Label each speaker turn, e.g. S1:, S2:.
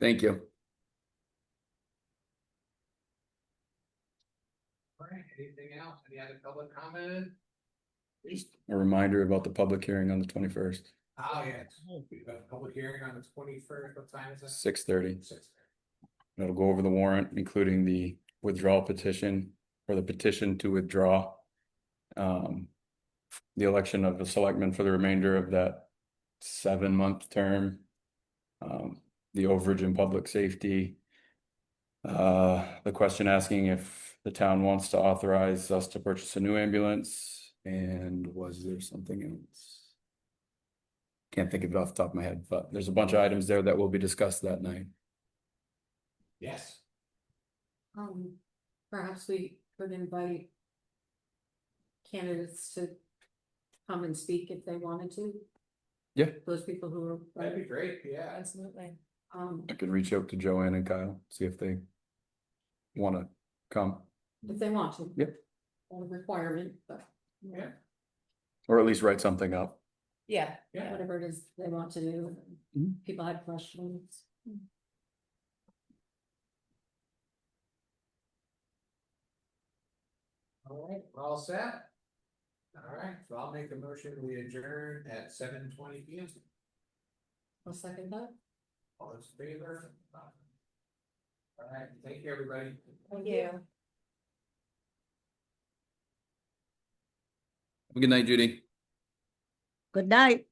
S1: Thank you.
S2: All right, anything else? Any other public comment?
S1: A reminder about the public hearing on the twenty-first,
S2: Oh, yeah, it's- we have a public hearing on the twenty-first, what time is it?
S1: six thirty.
S2: Six.
S1: It'll go over the warrant, including the withdrawal petition or the petition to withdraw. Um, the election of the selectmen for the remainder of that seven-month term. Um, the overage in public safety. Uh, the question asking if the town wants to authorize us to purchase a new ambulance and was there something else? Can't think of it off the top of my head, but there's a bunch of items there that will be discussed that night.
S2: Yes,
S3: Um, perhaps we could invite. Candidates to come and speak if they wanted to.
S1: Yeah.
S3: Those people who
S2: that'd be
S3: are,
S2: great, yeah.
S3: absolutely, um,
S1: I could reach out to Joanne and Kyle, see if they wanna come,
S3: if they want to.
S1: Yep.
S3: Not a requirement, but.
S2: Yeah.
S1: or at least write something up.
S3: Yeah.
S2: Yeah.
S3: Whatever it is they want to do,
S1: Mhm.
S3: people have questions.
S2: All right, we're all set? All right, so I'll make a motion, we adjourn at seven twenty P M.
S3: I'll second that.
S2: All those in favor? All right, thank you, everybody.
S1: Good night, Judy.
S4: Good night.